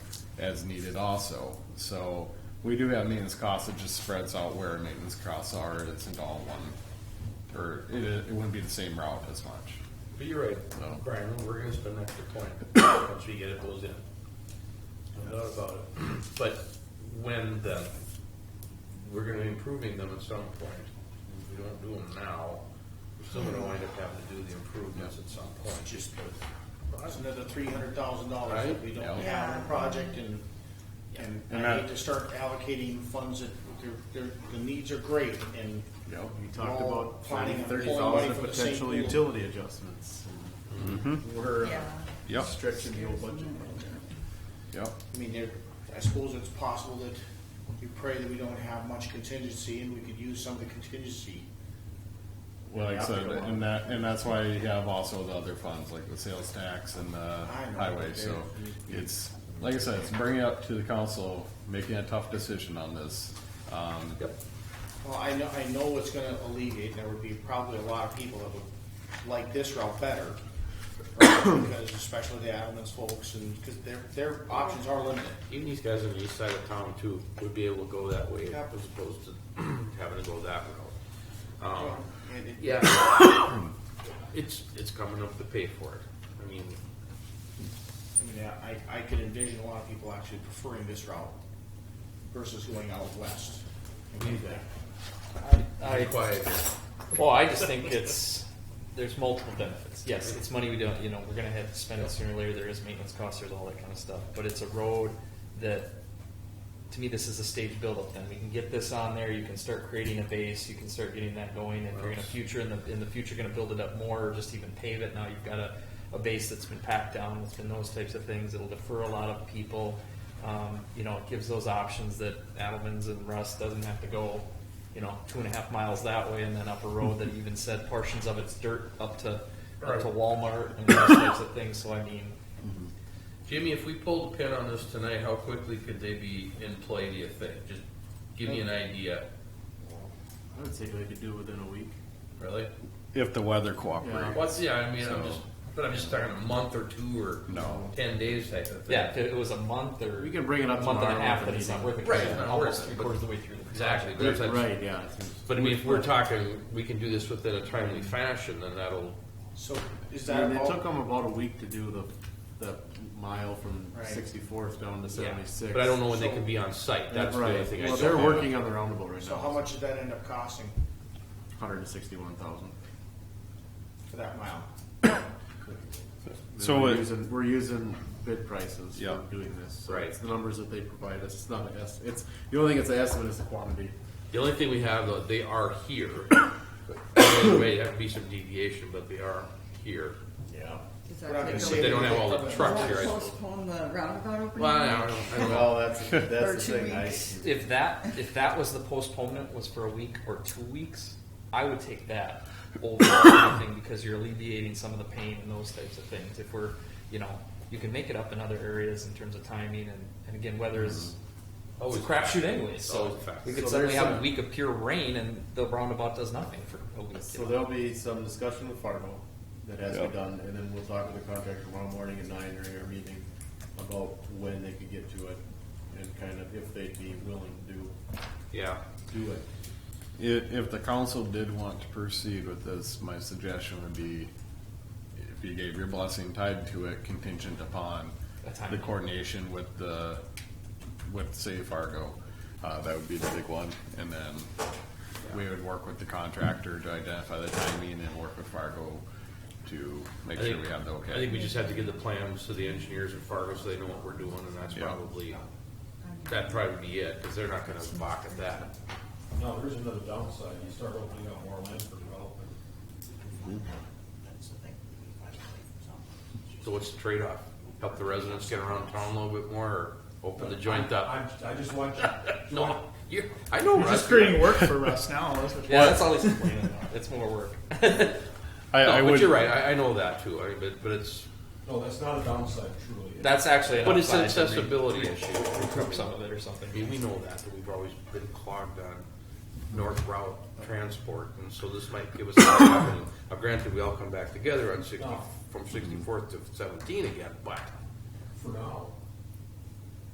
as needed also. So we do have maintenance costs, it just spreads out where maintenance costs are, it's into all one, or it, it wouldn't be the same route as much. But you're right, No. Brian, we're gonna spend an extra twenty, once we get it closed in. No doubt about it. But when the, we're gonna be improving them at some point. If we don't do them now, we're still gonna wind up having to do the improvements at some point. just that's another three hundred thousand dollars Right? that we don't Yeah. have in the project and, and And I that- need to start allocating funds that, their, their, the needs are great and. Yep, you talked we're all about planning on thirty pulling money thousand from the same potential pool. utility adjustments. We're uh, Yeah. Yep. stretching the old budget. Yep, I mean, there, I suppose it's possible that we pray that we don't have much contingency and we could use some of the contingency. like I Yeah. said, and that, and that's why you have also the other funds, like the sales tax and the I know, highway, but so they're- it's, like I said, it's bringing it up to the council, making a tough decision on this. Um, Yep. Well, I know, I know it's gonna alleviate, there would be probably a lot of people that would like this route better. right? Because especially the Adamans folks and, because their, their options are limited. Even these guys on the east side of town too would be able to go that way Yep. as opposed to having to go that route. Oh. Um, And it- yeah. It's, it's coming up to pay for it. I mean, I mean, I, I could envision a lot of people actually preferring this route versus going out west. I mean, that- I, quiet. well, I just think it's, there's multiple benefits. Yes, it's money we don't, you know, we're gonna have to spend it sooner or later, there is maintenance costs, there's all that kind of stuff. But it's a road that, to me, this is a stage buildup then. We can get this on there, you can start creating a base, you can start getting that going. And you're gonna future, in the, in the future, gonna build it up more, or just even pave it. Now you've got a, a base that's been packed down, it's been those types of things. It'll defer a lot of people. Um, you know, it gives those options that Adelman's and Russ doesn't have to go you know, two and a half miles that way, and then up a road that even said portions of it's dirt up to, up to Walmart and those types of things, so I mean, Jimmy, if we pulled a pin on this tonight, how quickly could they be in play, do you think? Just give me an idea, I would say they could do within a week. really? If the weather cooperates. What's, yeah, I mean, So- I'm just, but I'm just talking a month or two or No. ten days type of thing. yeah, if it was a month or. We can bring it up A month and a tomorrow half, with but the it's not worth it. 'cause Right, it's we're not Almost worth it, three but- quarters of the way through. the Exactly, but project. it's like- Right, yeah. But I mean, if we're talking, we can do this within a timely fashion, then that'll, So is that And it took all? them about a week to do the, the mile from Right. sixty-fourth down to yeah. seventy-six. But I don't know when they can be on site, that's the only Right, thing I well, don't they're know. working on the roundabout right now. So how much did that end up costing Hundred and sixty-one thousand. for that mile? So we're it- using, we're using bid prices Yeah. for doing this. So Right. It's the numbers that they provide us. It's not an estimate. It's, the only thing it's an estimate is the quantity. The only thing we have, though, they are here. There may have to be some deviation, but they are here. Yeah. Is We're not that gonna take say over- they don't have all the Will it trucks here, I suppose. Postpone the roundabout opening? Well, I don't, I don't know. Well, that's, Or that's two the thing. I, weeks. If that, if that was the postponement was for a week or two weeks, I would take that over anything because you're alleviating some of the pain and those types of things. If we're, you know, you can make it up in other areas in terms of timing and, and again, weather is, Mm-hmm. Oh, it's a Always crapshoot fact. anyway, Always so fact. we So could suddenly there's have a some- week of pure rain and the roundabout does nothing for a week. so there'll be some discussion with Fargo that has to Yeah. be done, and then we'll talk with the contractor tomorrow morning at nine during our meeting about when they could get to it and kind of if they'd be willing to Yeah, do it. If, if the council did want to proceed with this, my suggestion would be, if you gave your blessing tied to it contingent upon A time. the coordination with the, with say Fargo, uh, that would be the big one, and then we would work with the contractor to identify the timing and work with Fargo to I make sure think, we have the I think we okay. just have to get the plans to the engineers at Fargo so they know what we're doing, and that's Yeah. probably, that'd probably be it, because they're not gonna balk at that. No, there's another downside, you start opening up more land for development. So what's the trade-off? Help the residents get around town a little bit more, or open the joint up? I'm, I just want you, No, you, I know, Russ. work for us now. That's what Yeah, that's all he's complaining about. It's more work. I, I No, would, But you're right, I, I know that too, I, but, but it's, no, that's not a downside truly. That's actually an but it's an upside to re- accessibility issue. recoup some of it or something. I mean, we know that, that we've always been clogged on north route transport, and so this might give us an avenue. Now, granted, we all come back together on sixty, from sixty-fourth to seventeen again, but For now,